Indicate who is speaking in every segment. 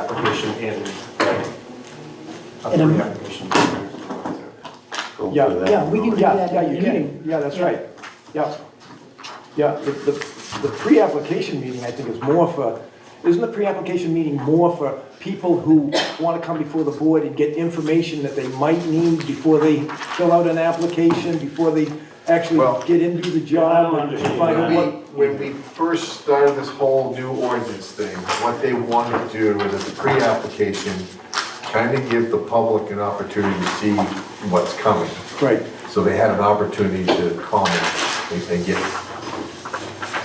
Speaker 1: application in, right? A
Speaker 2: In a-
Speaker 1: three application.
Speaker 3: go
Speaker 4: Yeah,
Speaker 3: for that.
Speaker 2: yeah, we can do
Speaker 4: Yeah,
Speaker 2: that.
Speaker 4: yeah, you
Speaker 2: Yeah.
Speaker 4: can, yeah, that's
Speaker 2: Yeah.
Speaker 4: right, yeah. Yeah, the, the, the pre-application meeting, I think, is more for, isn't the pre-application meeting more for people who wanna come before the board and get information that they might need before they fill out an application, before they actually
Speaker 5: Well-
Speaker 4: get into the job and find out what,
Speaker 5: When we first started this whole new ordinance thing, what they wanted to do was at the pre-application, kind of give the public an opportunity to see what's coming.
Speaker 4: right,
Speaker 5: So they had an opportunity to comment and and get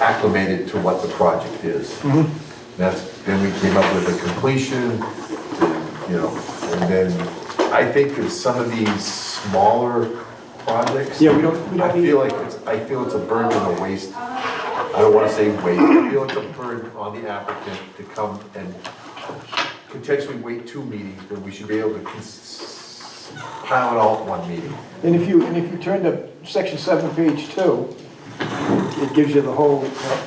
Speaker 5: acclimated to what the project is.
Speaker 4: Mm-hmm.
Speaker 5: That's, then we came up with a completion, you know, and then I think that some of these smaller projects.
Speaker 4: Yeah, we don't- we don't
Speaker 5: I feel like it's, I feel it's a burden and a waste. I don't wanna say waste, I feel it's a burden on the applicant to come and potentially wait two meetings, when we should be able to cons- pile it all in one meeting.
Speaker 4: and if you, and if you turn to section seven, page two, it gives you the whole, uh,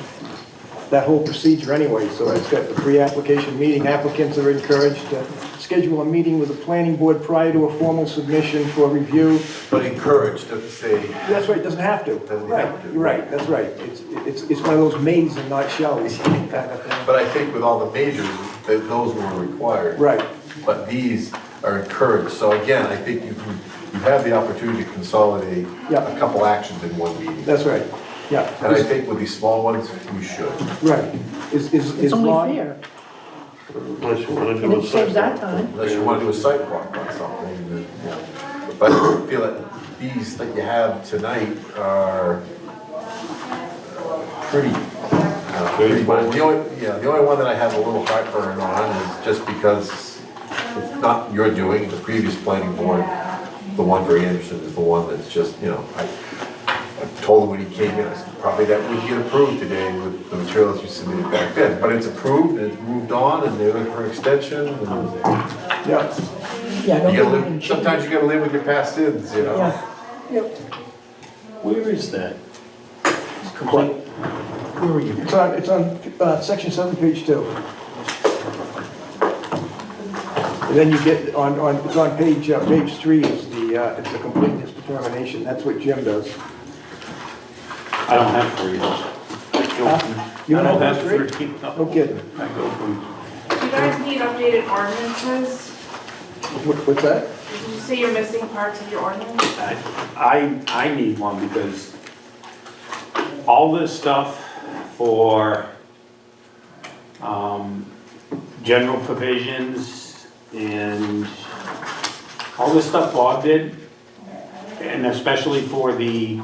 Speaker 4: that whole procedure anyway, so it's got the pre-application meeting, applicants are encouraged to schedule a meeting with the planning board prior to a formal submission for review.
Speaker 5: But encouraged, doesn't say,
Speaker 4: That's right, it doesn't have to.
Speaker 5: Doesn't
Speaker 4: Right,
Speaker 5: have to.
Speaker 4: You're right, that's right, it's, it's, it's one of those mays and not shells kind of thing.
Speaker 5: but I think with all the majors, that those were required.
Speaker 4: Right.
Speaker 5: But these are encouraged, so again, I think you can, you have the opportunity to consolidate
Speaker 4: Yeah.
Speaker 5: a couple actions in one meeting.
Speaker 4: That's right,
Speaker 5: And I
Speaker 4: yeah,
Speaker 5: think with these small ones, we should.
Speaker 4: right. Is, is, is
Speaker 2: It's
Speaker 4: Lon-
Speaker 2: only fair,
Speaker 3: Unless you wanna
Speaker 2: and
Speaker 3: do a
Speaker 2: it saves our
Speaker 3: sidewalk.
Speaker 2: time.
Speaker 5: Unless you want to do a sidewalk on something, then, yeah. But I feel that these that you have tonight are uh, pretty, uh, pretty much, the only, yeah, the only one that I have a little heartburn on is just because it's not your doing, the previous planning board, the one for Anderson is the one that's just, you know, I, I told him when he came in, I said, probably that would get approved today with the materials you submitted back then, but it's approved, and it's moved on, and they're looking for extension, and
Speaker 4: Yeah.
Speaker 2: Yeah, I don't
Speaker 5: you gotta
Speaker 2: think we can
Speaker 5: live,
Speaker 2: change.
Speaker 5: sometimes you gotta live with your past sins, you know?
Speaker 2: Yeah, Yep.
Speaker 3: Where is that? Complaint? Where are you?
Speaker 4: It's on, it's on, uh, section seven, page two. And then you get on, on, it's on page, uh, page three is the, uh, it's the completeness determination, that's what Jim does.
Speaker 6: I don't have three.
Speaker 4: You
Speaker 6: I
Speaker 4: don't
Speaker 6: don't
Speaker 4: have
Speaker 6: have
Speaker 4: three?
Speaker 6: three. no.
Speaker 4: No kidding.
Speaker 6: I go from,
Speaker 7: Do you guys need updated ordinances?
Speaker 4: What, what's that?
Speaker 7: Did you say you're missing parts of your ordinance?
Speaker 6: I, I need one because all this stuff for, um, general provisions and all this stuff Bob did, and especially for the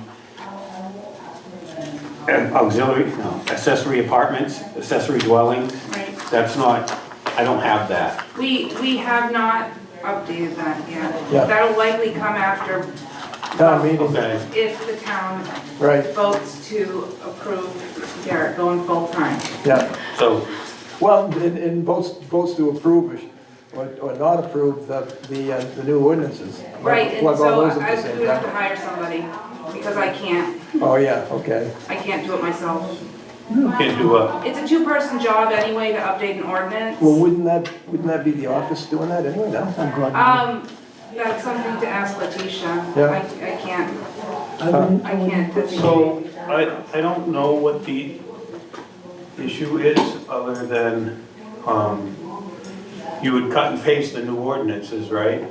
Speaker 6: auxiliary, no, accessory apartments, accessory dwellings,
Speaker 7: Right.
Speaker 6: that's not, I don't have that.
Speaker 7: We, we have not updated that yet.
Speaker 4: Yeah.
Speaker 7: That'll likely come after
Speaker 4: Town meeting,
Speaker 6: Okay.
Speaker 7: if the town
Speaker 4: right,
Speaker 7: votes to approve Garrett going full-time.
Speaker 4: yeah.
Speaker 6: So
Speaker 4: Well, and, and votes, votes to approve or, or not approve the, the, uh, the new ordinances.
Speaker 7: Right, and
Speaker 4: Plug all
Speaker 7: so
Speaker 4: those at
Speaker 7: I,
Speaker 4: the same
Speaker 7: we would have to
Speaker 4: time.
Speaker 7: hire somebody, because I can't,
Speaker 4: Oh, yeah, okay,
Speaker 7: I can't do it myself.
Speaker 6: can do a,
Speaker 7: It's a two-person job anyway to update an
Speaker 4: well,
Speaker 7: ordinance.
Speaker 4: wouldn't that, wouldn't that be the office doing that anyway, no?
Speaker 2: I'm glad.
Speaker 7: Um, that's something to ask Letitia.
Speaker 4: Yeah.
Speaker 7: I, I can't,
Speaker 2: I wouldn't,
Speaker 7: I
Speaker 2: I wouldn't.
Speaker 7: can't.
Speaker 6: so I, I don't know what the issue is other than, um, you would cut and paste the new ordinances, right?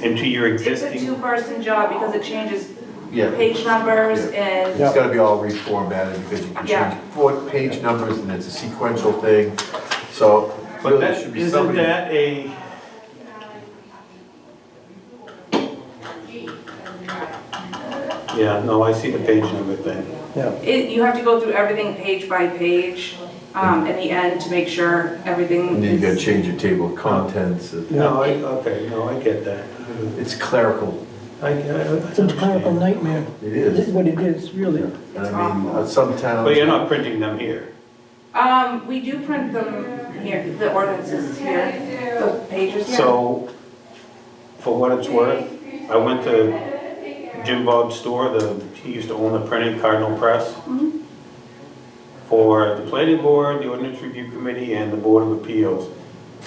Speaker 6: Into your
Speaker 7: It's a
Speaker 6: existing,
Speaker 7: two-person job because it changes
Speaker 5: Yeah,
Speaker 7: page numbers and,
Speaker 4: Yeah.
Speaker 5: it's gotta be all reformatted because you can
Speaker 7: Yeah.
Speaker 5: change four page numbers and it's a sequential thing, so
Speaker 6: but
Speaker 5: really
Speaker 6: that,
Speaker 5: should be
Speaker 6: isn't
Speaker 5: somebody.
Speaker 6: that a? Yeah, no, I see the page number thing.
Speaker 4: Yeah,
Speaker 7: it, you have to go through everything page by page, um, in the end to make sure
Speaker 5: And
Speaker 7: everything
Speaker 5: then you gotta
Speaker 7: is.
Speaker 5: change your table of contents, and
Speaker 6: No, I, okay, no, I get that.
Speaker 5: it's clerical,
Speaker 6: I, I.
Speaker 2: It's a clerical nightmare,
Speaker 5: it
Speaker 2: This is
Speaker 5: is.
Speaker 2: what it is, really.
Speaker 5: And I mean, uh, some towns.
Speaker 6: But you're not printing them here.
Speaker 7: Um, we do print them here, the ordinances here, the pages here.
Speaker 6: So, for what it's worth, I went to Jim Bob's store, the, he used to own the printing Cardinal Press. For the planning board, the ordinance review committee, and the board of appeals.